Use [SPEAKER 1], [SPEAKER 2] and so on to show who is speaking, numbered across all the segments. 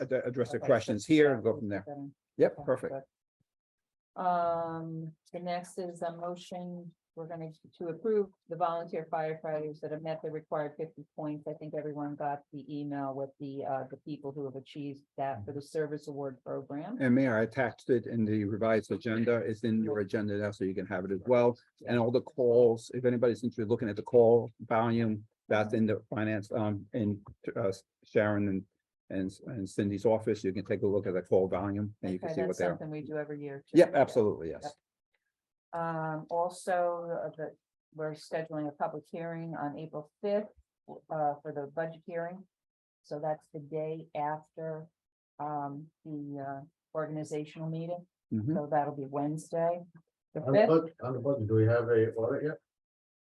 [SPEAKER 1] ad- address the
[SPEAKER 2] Okay, so
[SPEAKER 1] questions here and
[SPEAKER 2] that
[SPEAKER 1] go
[SPEAKER 2] would
[SPEAKER 1] from
[SPEAKER 2] be
[SPEAKER 1] there.
[SPEAKER 2] better.
[SPEAKER 1] Yep,
[SPEAKER 2] Okay,
[SPEAKER 1] perfect.
[SPEAKER 2] good. Um, the next is a motion, we're gonna to approve the volunteer firefighters that have met the required fifty points. I think everyone got the email with the uh, the people who have achieved that for the service award program.
[SPEAKER 1] And Mayor, I attached it in the revised agenda. It's in your agenda now, so you can have it as well. And all the calls, if anybody's interested, looking at the call volume, that's in the finance, um, in uh, Sharon and and and Cindy's office. You can take a look at the call volume and you can
[SPEAKER 2] Okay,
[SPEAKER 1] see what
[SPEAKER 2] that's
[SPEAKER 1] they're.
[SPEAKER 2] Something we do every year. too.
[SPEAKER 1] Yep, absolutely, yes.
[SPEAKER 2] Um, also, uh, the, we're scheduling a public hearing on April fifth, uh, for the budget hearing. So that's the day after, um, the, uh, organizational meeting,
[SPEAKER 1] Mhm.
[SPEAKER 2] so that'll be Wednesday. The
[SPEAKER 3] On the
[SPEAKER 2] fifth,
[SPEAKER 3] budget, on the budget, do we have a audit yet?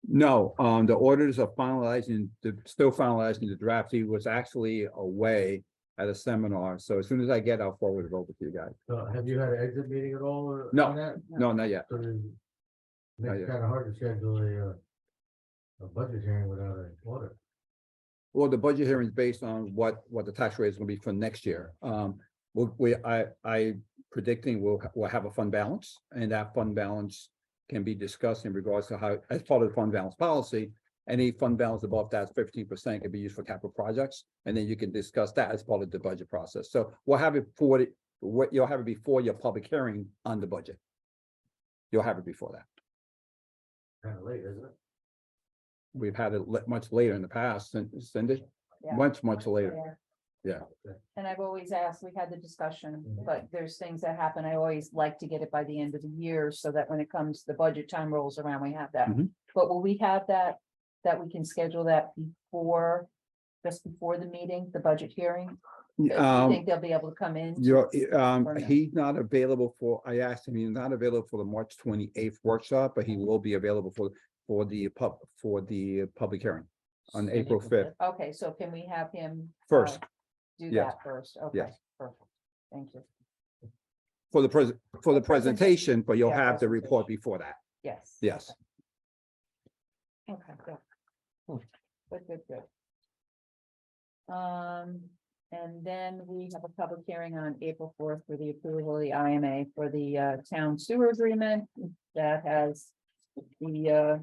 [SPEAKER 1] No, um, the orders are finalizing, the- still finalizing the draft. He was actually away at a seminar. So as soon as I get, I'll forward it over to you guys.
[SPEAKER 3] Uh, have you had an exit meeting at all or?
[SPEAKER 1] No.
[SPEAKER 3] on that?
[SPEAKER 1] No, not yet.
[SPEAKER 3] So it's-
[SPEAKER 1] Not
[SPEAKER 3] It's
[SPEAKER 1] yet.
[SPEAKER 3] kind of hard to schedule a, uh, a budget hearing without an audit.
[SPEAKER 1] Well, the budget hearing is based on what, what the tax rate is gonna be for next year. Um, we, we, I, I predicting we'll, ha- we'll have a fund balance and that fund balance can be discussed in regards to how, as part of the fund balance policy, any fund balance above that fifteen percent can be used for capital projects. And then you can discuss that as part of the budget process. So we'll have it for, the- what, you'll have it before your public hearing on the budget. You'll have it before that.
[SPEAKER 3] Kind of late, isn't it?
[SPEAKER 1] We've had it le- much later in the past, Cin- Cindy,
[SPEAKER 2] Yeah.
[SPEAKER 1] much, much later.
[SPEAKER 2] Yeah.
[SPEAKER 3] Yeah.
[SPEAKER 2] And I've always asked, we had the discussion,
[SPEAKER 1] Mm-hmm.
[SPEAKER 3] Mhm.
[SPEAKER 2] but there's things that happen. I always like to get it by the end of the year so that when it comes, the budget time rolls around, we have that.
[SPEAKER 1] Mhm.
[SPEAKER 2] But will we have that, that we can schedule that before, just before the meeting, the budget hearing? Do you
[SPEAKER 1] Um,
[SPEAKER 2] think they'll be able to come in?
[SPEAKER 1] You're, um,
[SPEAKER 2] Or no?
[SPEAKER 1] he's not available for, I asked him, he's not available for the March twenty-eighth workshop, but he will be available for, for the pub, for the public hearing on April fifth,
[SPEAKER 2] Okay, so can we have him? uh,
[SPEAKER 1] first,
[SPEAKER 2] Do
[SPEAKER 1] yes.
[SPEAKER 2] that first, okay,
[SPEAKER 1] Yes.
[SPEAKER 2] perfect, thank you,
[SPEAKER 1] for the pres for the
[SPEAKER 2] The presentation.
[SPEAKER 1] presentation, but you'll
[SPEAKER 2] Yeah,
[SPEAKER 1] have the report
[SPEAKER 2] presentation.
[SPEAKER 1] before that.
[SPEAKER 2] yes.
[SPEAKER 1] Yes.
[SPEAKER 2] Okay, good.
[SPEAKER 1] Hmm.
[SPEAKER 2] Good, good, good. Um, and then we have a public hearing on April fourth for the approval of the IMA for the uh town sewer agreement that has. The uh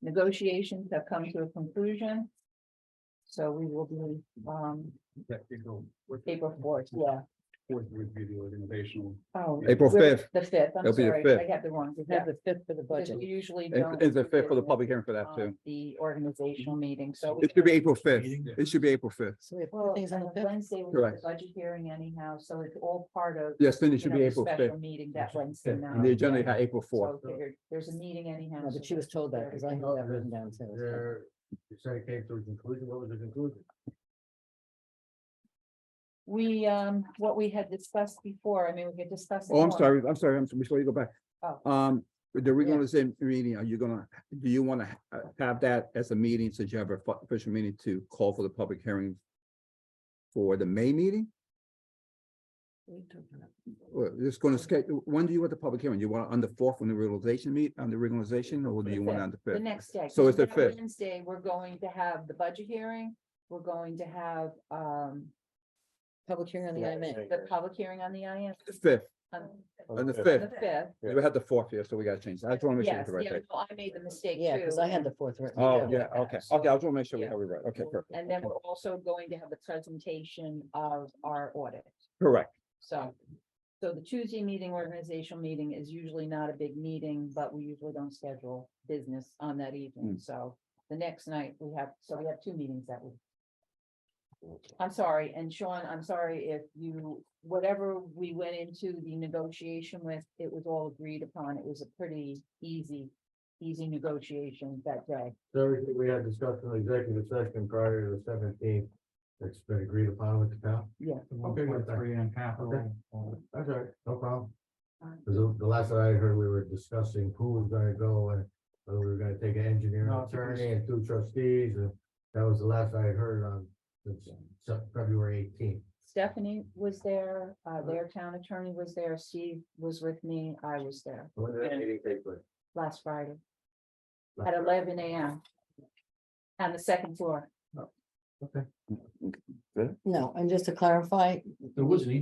[SPEAKER 2] negotiations have come to a conclusion. So we will be um
[SPEAKER 3] Technical.
[SPEAKER 2] April fourth, yeah,
[SPEAKER 3] would be the organizational.
[SPEAKER 2] oh.
[SPEAKER 1] April
[SPEAKER 2] we're-
[SPEAKER 1] fifth,
[SPEAKER 2] The fifth, I'm
[SPEAKER 1] It'll be the
[SPEAKER 2] sorry, I
[SPEAKER 1] fifth.
[SPEAKER 2] got the wrong,
[SPEAKER 4] We
[SPEAKER 2] yeah,
[SPEAKER 4] have the fifth for the
[SPEAKER 2] because
[SPEAKER 4] budget.
[SPEAKER 2] we usually don't.
[SPEAKER 1] it's the fifth for the
[SPEAKER 2] do
[SPEAKER 1] public hearing for that
[SPEAKER 2] on
[SPEAKER 1] too.
[SPEAKER 2] The uh, organizational meeting, so.
[SPEAKER 1] It should be April fifth, it should be April fifth.
[SPEAKER 4] So we have
[SPEAKER 2] Well,
[SPEAKER 4] two things on the
[SPEAKER 2] and
[SPEAKER 4] fifth.
[SPEAKER 2] Wednesday was the
[SPEAKER 1] Correct.
[SPEAKER 2] budget hearing anyhow, so it's all part of.
[SPEAKER 1] Yes, then it
[SPEAKER 2] you
[SPEAKER 1] should
[SPEAKER 2] know,
[SPEAKER 1] be
[SPEAKER 2] the
[SPEAKER 1] April fifth.
[SPEAKER 2] Special meeting that Wednesday
[SPEAKER 3] Fifth.
[SPEAKER 1] And
[SPEAKER 2] night.
[SPEAKER 1] the agenda had April fourth.
[SPEAKER 2] So I figured There's a meeting anyhow.
[SPEAKER 4] No,
[SPEAKER 2] so
[SPEAKER 4] but she was
[SPEAKER 2] that's
[SPEAKER 4] told that
[SPEAKER 2] there.
[SPEAKER 4] because I had that written down too. so.
[SPEAKER 3] There, you said it came to a conclusion. What was the conclusion?
[SPEAKER 2] We, um, what we had discussed before, I mean, we could discuss. it
[SPEAKER 1] Oh, I'm
[SPEAKER 2] more.
[SPEAKER 1] sorry, I'm sorry, I'm, sorry, before you go back.
[SPEAKER 2] Oh.
[SPEAKER 1] Um, the reorganization meeting, are you gonna, do you wanna ha- have that as a meeting, since you have a fu- official meeting to call for the public hearing? For the May meeting, or just gonna schedule, when do you want the public hearing? You want it on the fourth, when the realization meet, on the reorganization, or do you want it on the
[SPEAKER 2] The
[SPEAKER 1] fifth?
[SPEAKER 2] next day.
[SPEAKER 1] So
[SPEAKER 2] 'cause
[SPEAKER 1] it's the
[SPEAKER 2] that
[SPEAKER 1] fifth.
[SPEAKER 2] Wednesday, we're going to have the budget hearing, we're going to have, um,
[SPEAKER 4] Public hearing on the
[SPEAKER 3] Yeah,
[SPEAKER 4] IMA.
[SPEAKER 3] yeah.
[SPEAKER 2] the public hearing on the IM.
[SPEAKER 1] The Fifth,
[SPEAKER 2] on
[SPEAKER 1] on the
[SPEAKER 2] the
[SPEAKER 1] fifth,
[SPEAKER 2] fifth.
[SPEAKER 3] Yeah.
[SPEAKER 1] we had the fourth here, so we gotta change, that. I just wanna make sure. we
[SPEAKER 2] Yes,
[SPEAKER 1] have the right
[SPEAKER 2] yeah,
[SPEAKER 1] date.
[SPEAKER 2] no, I made the mistake too.
[SPEAKER 4] Yeah, because I had the fourth written.
[SPEAKER 1] Oh,
[SPEAKER 4] down.
[SPEAKER 1] yeah, okay, okay, I just wanna make sure we
[SPEAKER 2] Yeah.
[SPEAKER 1] have it right, okay, perfect.
[SPEAKER 2] And then we're also going to have a presentation of our audit,
[SPEAKER 1] Correct,
[SPEAKER 2] so. So the Tuesday meeting, organizational meeting is usually not a big meeting, but we usually don't schedule business on that evening, so. The next night we have, so we have two meetings that week. I'm sorry, and Sean, I'm sorry if you, whatever we went into the negotiation with, it was all agreed upon. It was a pretty easy, easy negotiation that day.
[SPEAKER 3] So everything we had discussed in the executive session prior to the seventeenth, it's been agreed upon with the town.
[SPEAKER 2] Yeah.
[SPEAKER 3] Okay, good.
[SPEAKER 5] Three and
[SPEAKER 3] Okay.
[SPEAKER 5] capital.
[SPEAKER 3] That's all right, no problem.
[SPEAKER 2] Alright.
[SPEAKER 3] 'Cause the- the last that I heard, we were discussing who was gonna go and whether we were gonna take an engineer,
[SPEAKER 5] No,
[SPEAKER 3] and
[SPEAKER 5] it's yours.
[SPEAKER 3] attorney and two trustees, and that was the last I had heard on since Se- February eighteenth.
[SPEAKER 2] Stephanie was there, uh, their town attorney was there, Steve was with me, I was there
[SPEAKER 3] When did that meeting take place?
[SPEAKER 2] last Friday at eleven AM. On the second floor.
[SPEAKER 3] No, and just to clarify,
[SPEAKER 4] There was an